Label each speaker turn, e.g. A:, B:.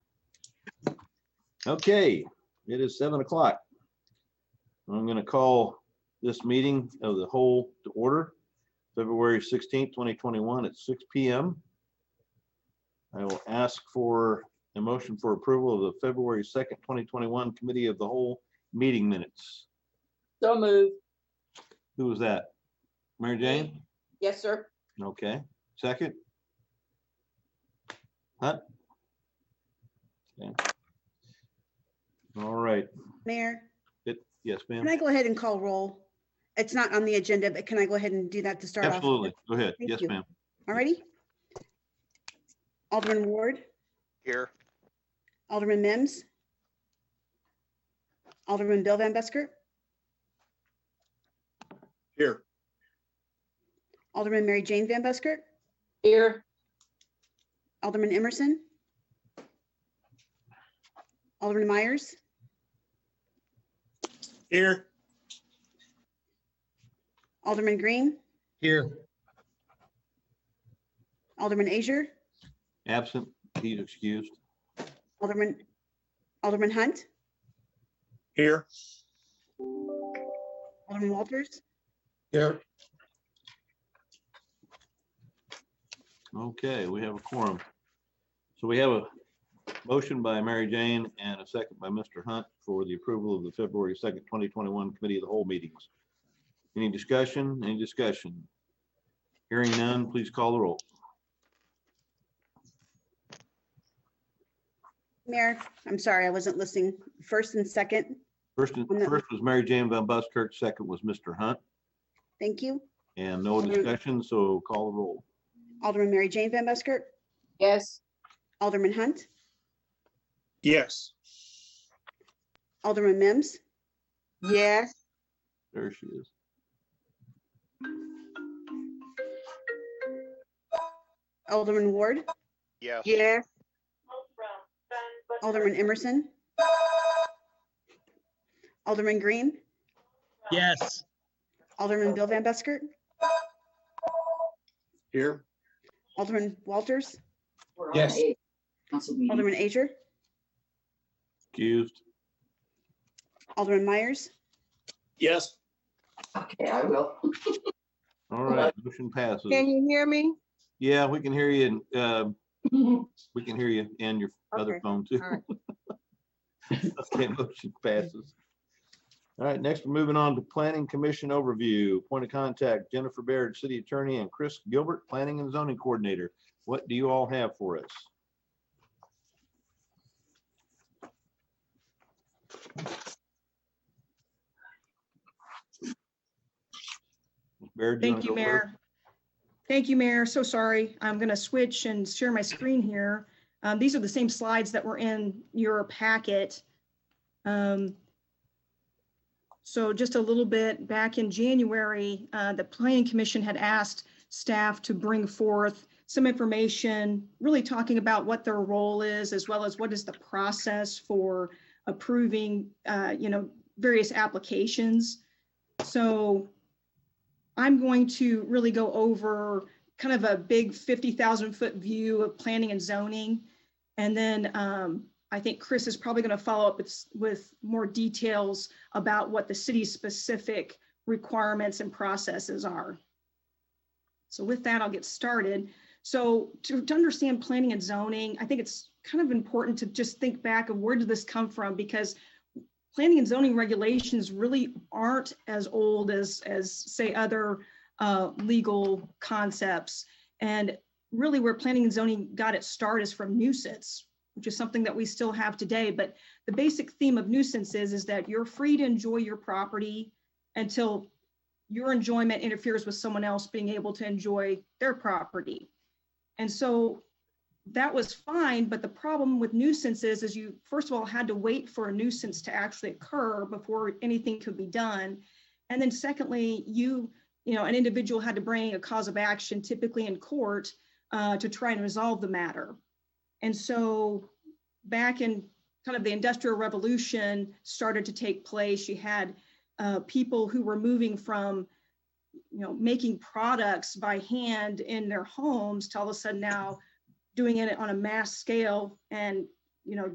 A: Okay, it is seven o'clock. I'm gonna call this meeting of the whole to order, February sixteenth, twenty twenty-one at six P M. I will ask for a motion for approval of the February second, twenty twenty-one Committee of the Whole Meeting Minutes.
B: So move.
A: Who was that? Mary Jane?
B: Yes, sir.
A: Okay, second? Huh? Okay. All right,
C: Mayor,
A: It- yes, ma'am.
C: can I go ahead and call roll? It's not on the agenda, but can I go ahead and do that to start off?
A: Absolutely. Go ahead.
C: Thank
A: Yes,
C: you.
A: ma'am.
C: Alrighty. Alderman Ward,
D: Here.
C: Alderman Mims. Alderman Bill Van Busker,
D: Here.
C: Alderman Mary Jane Van Busker,
B: Here.
C: Alderman Emerson. Alderman Myers,
D: Here.
C: Alderman Green,
D: Here.
C: Alderman Asia,
A: Absent, he's excused.
C: Alderman, Alderman Hunt,
D: Here.
C: Alderman Walters,
D: Here.
A: Okay, we have a quorum. So we have a motion by Mary Jane and a second by Mr. Hunt for the approval of the February second, twenty twenty-one committee of the whole meetings. Any discussion? Any discussion? Hearing none, please call the roll.
C: Mayor, I'm sorry, I wasn't listening. First and second,
A: First, first was Mary Jane Van Buskirk, second was Mr. Hunt,
C: thank you.
A: and no discussion, so call the roll.
C: Alderman Mary Jane Van Busker,
B: Yes.
C: Alderman Hunt,
D: Yes.
C: Alderman Mims,
B: Yes.
A: There she is.
C: Alderman Ward,
D: Yes.
B: Yes.
C: Alderman Emerson, Alderman Green,
E: Yes,
C: Alderman Bill Van Busker,
D: Here.
C: Alderman Walters,
D: Yes.
C: Alderman Asia,
A: Excused.
C: Alderman Myers,
D: Yes.
F: Okay, I will.
A: All right, motion passes.
B: Can you hear me?
A: Yeah, we can hear you and, um, We can hear you and your other
B: Okay,
A: phone too.
B: all right.
A: Okay, motion passes. All right, next, we're moving on to Planning Commission overview. Point of contact, Jennifer Baird, City Attorney, and Chris Gilbert, Planning and Zoning Coordinator. What do you all have for us? Ms. Baird, wanna
G: Thank you,
A: go first?
G: Mayor. Thank you, Mayor. So sorry. I'm going to switch and share my screen here. Um, These are the same slides that were in your packet. Um, So just a little bit, back in January, uh, the Planning Commission had asked staff to bring forth some information, really talking about what their role is, as well as what is the process for approving, uh, you know, various applications. So I'm going to really go over kind of a big 50,000 foot view of planning and zoning. And then um, I think Chris is probably going to follow up with, s- with more details about what the city's specific requirements and processes are. So with that, I'll get started. So to, to understand planning and zoning, I think it's kind of important to just think back of where did this come from? Because planning and zoning regulations really aren't as old as, as say other uh, legal concepts. And really where planning and zoning got its start is from nuisance, which is something that we still have today. But the basic theme of nuisance is, is that you're free to enjoy your property until your enjoyment interferes with someone else being able to enjoy their property. And so that was fine, but the problem with nuisances is you, first of all, had to wait for a nuisance to actually occur before anything could be done. And then secondly, you, you know, an individual had to bring a cause of action typically in court uh, to try and resolve the matter. And so back in kind of the industrial revolution started to take place, you had uh, people who were moving from you know, making products by hand in their homes to all of a sudden now doing it on a mass scale and, you know,